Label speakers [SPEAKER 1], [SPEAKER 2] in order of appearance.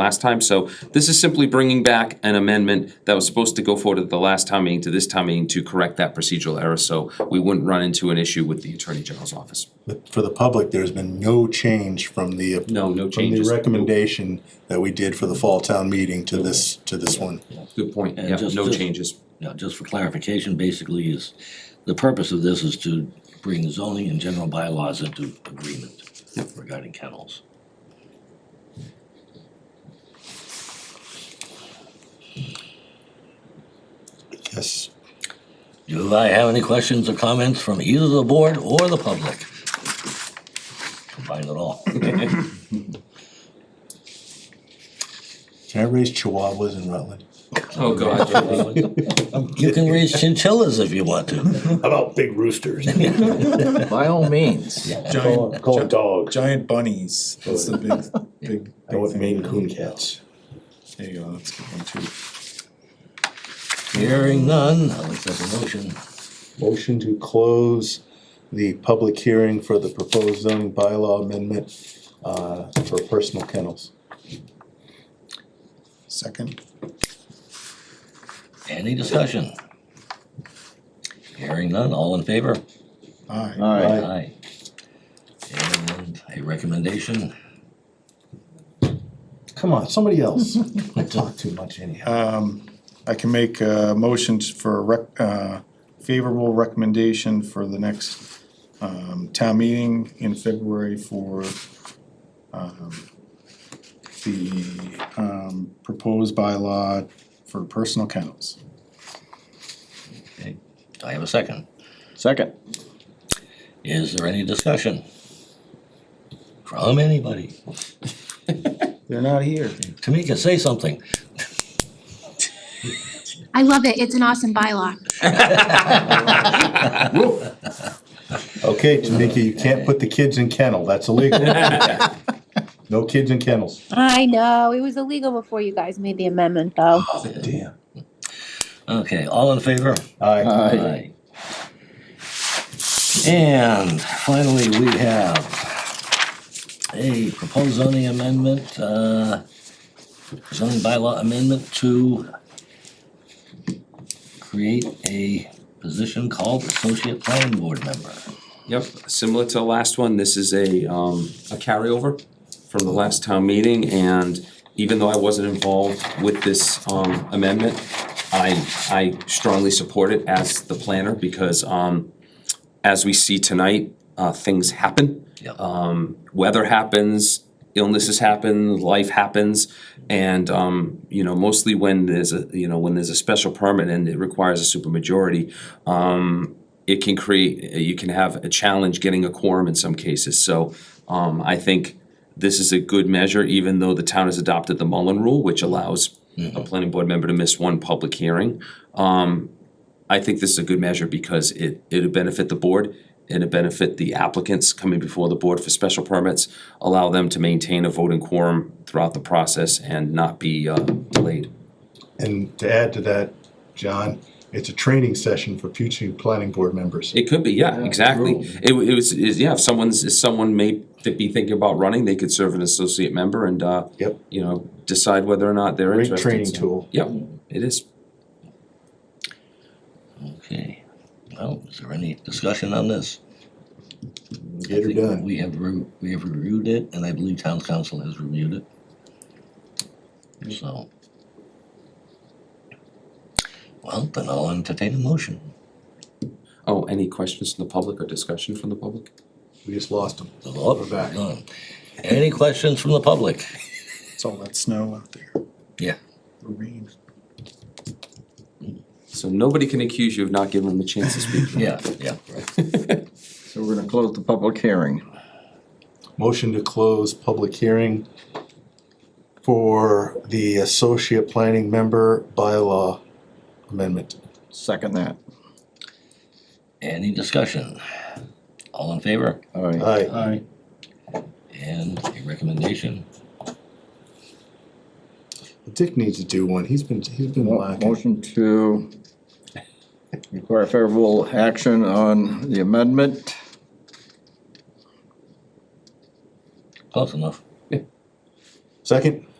[SPEAKER 1] last time, so this is simply bringing back an amendment that was supposed to go forward at the last time meeting to this time meeting to correct that procedural error, so we wouldn't run into an issue with the Attorney General's office.
[SPEAKER 2] But for the public, there's been no change from the.
[SPEAKER 1] No, no
[SPEAKER 2] From the
[SPEAKER 1] changes.
[SPEAKER 2] recommendation that we did for the fall town meeting to this, to this one.
[SPEAKER 1] Good point,
[SPEAKER 3] And
[SPEAKER 1] yeah,
[SPEAKER 3] just-
[SPEAKER 1] no
[SPEAKER 3] just-
[SPEAKER 1] changes.
[SPEAKER 3] Now, just for clarification, basically is, the purpose of this is to bring zoning and general bylaws into agreement regarding kennels.
[SPEAKER 2] Yes.
[SPEAKER 3] Do I have any questions or comments from either the board or the public? Combine it all.
[SPEAKER 2] Can I raise chihuahuas in Rutland?
[SPEAKER 1] Oh, God.
[SPEAKER 3] You can raise chinchillas if you want to.
[SPEAKER 4] How about big roosters?
[SPEAKER 5] By all means.
[SPEAKER 4] Call
[SPEAKER 6] Giant,
[SPEAKER 4] call them dogs.
[SPEAKER 6] giant bunnies. That's the big, big.
[SPEAKER 4] I want
[SPEAKER 6] big
[SPEAKER 4] Maine
[SPEAKER 6] thing.
[SPEAKER 4] Coon cats.
[SPEAKER 6] There you go, that's a good one too.
[SPEAKER 3] Hearing none, I'll accept the motion.
[SPEAKER 2] Motion to close the public hearing for the proposed zoning bylaw amendment, uh, for personal kennels.
[SPEAKER 6] Second,
[SPEAKER 3] Any discussion? Hearing none, all in favor?
[SPEAKER 6] aye.
[SPEAKER 5] All right.
[SPEAKER 3] Aye. And a recommendation?
[SPEAKER 2] Come on, somebody else. I talk too much anyhow.
[SPEAKER 6] I can make uh motions for a rec, uh, favorable recommendation for the next, um, town meeting in February for, um, the, um, proposed bylaw for personal kennels.
[SPEAKER 3] Okay. Do I have a second?
[SPEAKER 5] Second.
[SPEAKER 3] Is there any discussion? From anybody?
[SPEAKER 6] They're not here.
[SPEAKER 3] Tamika, say something.
[SPEAKER 7] I love it. It's an awesome bylaw.
[SPEAKER 2] Okay, Tamika, you can't put the kids in kennel, that's illegal. No kids in kennels.
[SPEAKER 8] I know, it was illegal before you guys made the amendment, though.
[SPEAKER 2] Damn.
[SPEAKER 3] Okay, all in favor?
[SPEAKER 2] Aye.
[SPEAKER 5] Aye.
[SPEAKER 3] And finally, we have a proposed zoning amendment, uh, zoning bylaw amendment to create a position called associate planning board member.
[SPEAKER 1] Yep, similar to the last one, this is a, um, a carryover from the last town meeting, and even though I wasn't involved with this, um, amendment, I, I strongly support it as the planner, because, um, as we see tonight, uh, things happen.
[SPEAKER 3] Yep.
[SPEAKER 1] Um, weather happens, illnesses happen, life happens, and, um, you know, mostly when there's a, you know, when there's a special permit and it requires a supermajority, um, it can create, you can have a challenge getting a quorum in some cases, so, um, I think this is a good measure, even though the town has adopted the Mullen Rule, which allows a planning board member to miss one public hearing. Um, I think this is a good measure because it, it'll benefit the board, it'll benefit the applicants coming before the board for special permits, allow them to maintain a voting quorum throughout the process and not be, uh, delayed.
[SPEAKER 2] And to add to that, John, it's a training session for future planning board members.
[SPEAKER 1] It could be, yeah, exactly. It, wa- it was, is, yeah, if someone's, if someone may th- be thinking about running, they could serve an associate member and, uh,
[SPEAKER 2] Yep.
[SPEAKER 1] you know, decide whether or not they're
[SPEAKER 2] Great
[SPEAKER 1] interested.
[SPEAKER 2] training
[SPEAKER 1] So,
[SPEAKER 2] tool.
[SPEAKER 1] Yep, it is.
[SPEAKER 3] Okay, well, is there any discussion on this?
[SPEAKER 2] Get her
[SPEAKER 3] I think
[SPEAKER 2] done.
[SPEAKER 3] We have, re- we have reviewed it, and I believe town council has reviewed it. So. Well, then I'll entertain a motion.
[SPEAKER 1] Oh, any questions from the public or discussion from the public?
[SPEAKER 2] We just lost them.
[SPEAKER 3] Oh,
[SPEAKER 2] We're back.
[SPEAKER 3] gone. Any questions from the public?
[SPEAKER 6] It's all that snow out there,
[SPEAKER 3] Yeah.
[SPEAKER 6] the rain.
[SPEAKER 1] So nobody can accuse you of not giving them a chance to speak.
[SPEAKER 3] Yeah, yeah, right.
[SPEAKER 5] So we're gonna close the public hearing.
[SPEAKER 2] Motion to close public hearing for the associate planning member bylaw amendment.
[SPEAKER 5] Second that.
[SPEAKER 3] Any discussion? All in favor?
[SPEAKER 5] All right.
[SPEAKER 2] Aye.
[SPEAKER 6] Aye.
[SPEAKER 3] And a recommendation?
[SPEAKER 2] Dick needs to do one. He's been, he's been
[SPEAKER 5] Mo-
[SPEAKER 2] lacking.
[SPEAKER 5] Motion to require favorable action on the amendment.
[SPEAKER 3] Close enough.
[SPEAKER 2] Second?